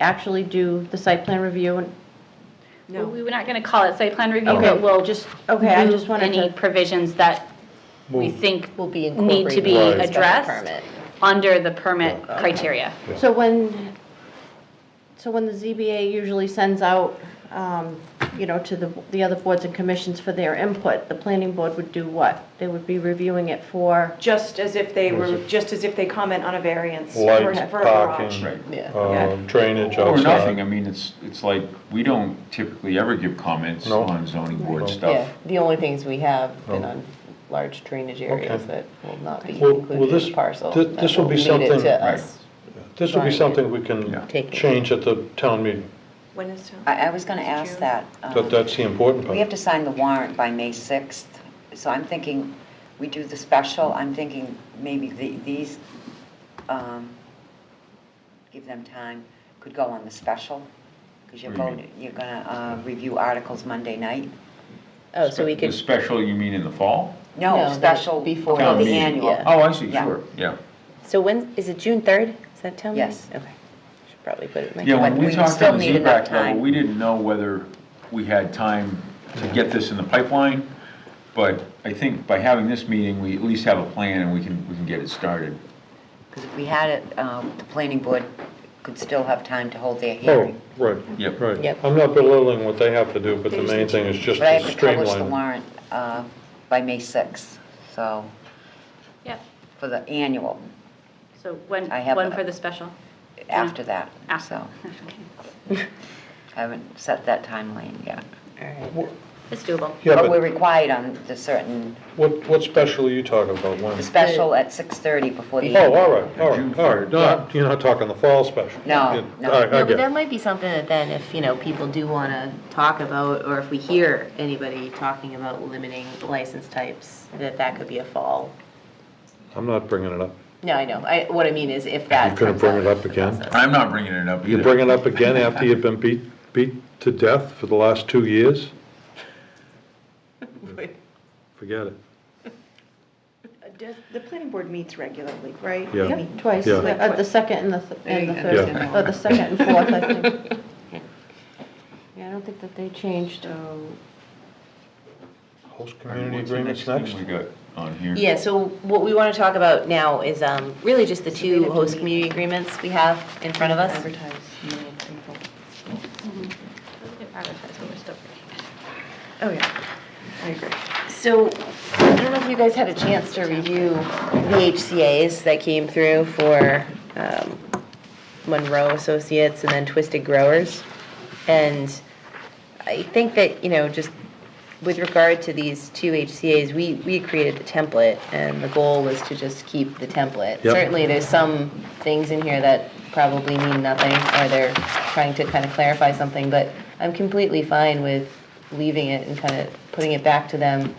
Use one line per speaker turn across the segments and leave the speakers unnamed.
actually do the site plan review and,
No.
We were not going to call it site plan review,
Okay,
but we'll just.
okay, I
move
just wanted
Any
to-
provisions that we
Move.
think
will be
need to
incorporated.
be
Right. Special
addressed
permit.
under the permit criteria.
so when, so when the ZBA usually sends out, um, you know, to the, the other boards and commissions for their input, the planning board would do what? They would be reviewing it for,
Just as if they
Was
were,
it-
just as if they comment on a variance for
Lights,
for a garage.
parking,
Yeah.
um, drainage
Or nothing, I
outside.
mean, it's, it's like, we don't typically ever give comments
No.
on zoning board
Yeah,
stuff.
the only things we have been
Oh.
on large drainage
Okay.
areas that will not be
Well- well,
included
this-
in parcel.
thi-
that
this will be
leave it
something-
to
Right.
us.
This will be
Right.
something we
Yeah.
can
Take it.
change at the town meeting.
When is uh, town?
I, I was gonna ask
June?
that. um,
That, that's the important
We have
part.
to sign the warrant by May 6th, so I'm thinking, we do the special, I'm thinking maybe the- these, um, give them time, could go on the special, because you're
What do you mean?
voting, you're gonna uh, review articles Monday night.
Oh, so we
The
could,
special, you mean in the fall?
No,
No,
the-
special
before
before
Town
the
meeting.
annual.
Yeah.
Oh, I see,
Yeah.
sure, yeah.
so when, is it June 3rd? Is that town meeting?
Yes.
Okay. Should probably put it in my.
Yeah, when
But
we
we
talked
still
on the
need enough
ZBAC level,
time.
we didn't know whether we had time to get this in the pipeline, but I think by having this meeting, we at least have a plan and we can, we can get it started.
Because if we had it, um, the planning board could still have time to hold their
Oh,
hearing.
right,
Yep.
right.
Yep.
I'm not belittling what they have to do, but the main thing is just
But I
to
have to publish the
streamline. it.
warrant uh, by May 6th, so,
Yep.
for the annual,
So one,
I have
one
a-
for the special.
after that,
Ah,
so.
okay.
I haven't set that timeline yet.
It's doable.
Yeah,
But we're
but
required on the certain,
what, what special are you talking about?
the
When?
special at 6:30 before the.
Oh, all right, all
June
right, all right. Not, you're not talking the fall special.
No,
Yeah,
no.
all right, I
No, but
get it.
that might be something that then if, you know, people do want to talk about, or if we hear anybody talking about limiting license types, that that could be a fall.
I'm not bringing it up.
No, I know. I, what I mean is if that.
You couldn't
comes
bring it up
as a
again?
process.
I'm not bringing it up either.
You bring it up again after you've been beat, beat to death for the last two years? Forget it.
Does- The planning board meets regularly, right?
Yeah.
They
Yep.
meet
twice,
Yeah.
like, uh, the second and the, th- and the
Yeah.
third,
Yeah.
or the second and fourth, I think. Yeah, I don't think that they changed, um,
Host
All right,
community
what's the
agreements
thing
next?
We got on here.
Yeah, so what we want to talk about now is um, really just the two host community agreements we have in front of us.
Advertise, you know, people. Oh, yeah, I agree.
So I don't know if you guys had a chance to review the HCA's that came through for um, Monroe Associates and then Twisted Growers. And I think that, you know, just with regard to these two HCA's, we, we created the template and the goal was to just keep the template.
Yep.
Certainly, there's some things in here that probably mean nothing or they're trying to kind of clarify something, but I'm completely fine with leaving it and kind of putting it back to them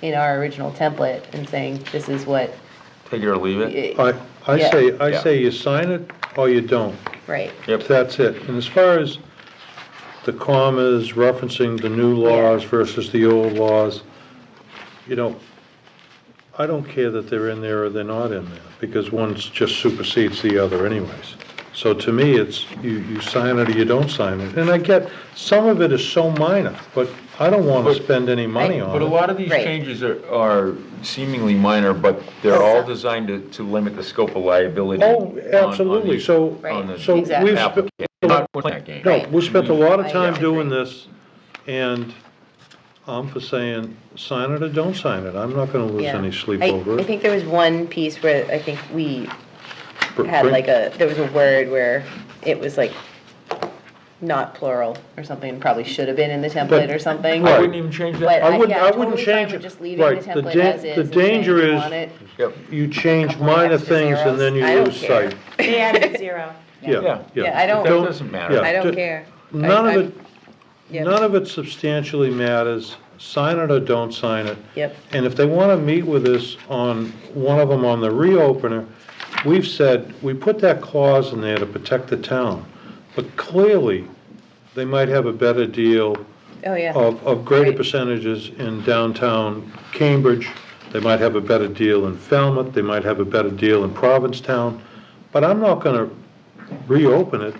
in our original template and saying, this is what,
Take it or leave
I, I
Yeah.
say, I
Yeah.
say you sign it or you don't.
right.
Yep.
That's it. And as far as the commas referencing the new laws versus the old laws, you know, I don't care that they're in there or they're not in there, because one just supersedes the other anyways. So to me, it's, you, you sign it or you don't sign it. And I get, some of it is so minor, but I don't want to spend any money on it.
But a lot of these
Right.
changes are are seemingly minor, but they're all designed to, to limit the scope of liability.
Oh,
on- on
absolutely.
the-
So-
on the
So
Exactly.
we've, spe-
applicant. Not playing that game.
No, we spent a
Mm-hmm.
lot of
I
time
agree.
doing this, and I'm for saying, sign it or don't sign it. I'm not gonna lose
Yeah.
any sleep
I-
over
I
it.
think there was one piece where I think we
Br-
had
bring-
like a, there was a word where it was like not plural or something, probably should have been in the template or something.
I
Right.
wouldn't even change
But
that.
I wouldn't-
yeah,
I wouldn't
totally fine
change
with
it.
just leaving the
Right, the
template
da-
as is
the
and saying
danger
we
is-
want it.
Yep.
You change
couple of
minor
extra
things and then you
zeros. I don't
lose
care.
sight.
They added zero.
Yeah,
Yeah.
yeah.
Yeah, I don't-
That doesn't matter.
yeah.
I don't
d-
care.
None
I-
of
yeah.
it, none of it substantially matters. Sign it or don't sign it.
Yep.
And if they want to meet with us on, one of them on the reopener, we've said, we put that clause in there to protect the town. But clearly, they might have a better deal
Oh, yeah.
of, of greater
Right.
percentages in downtown Cambridge. They might have a better deal in Falmouth, they might have a better deal in Provincetown. But I'm not gonna reopen it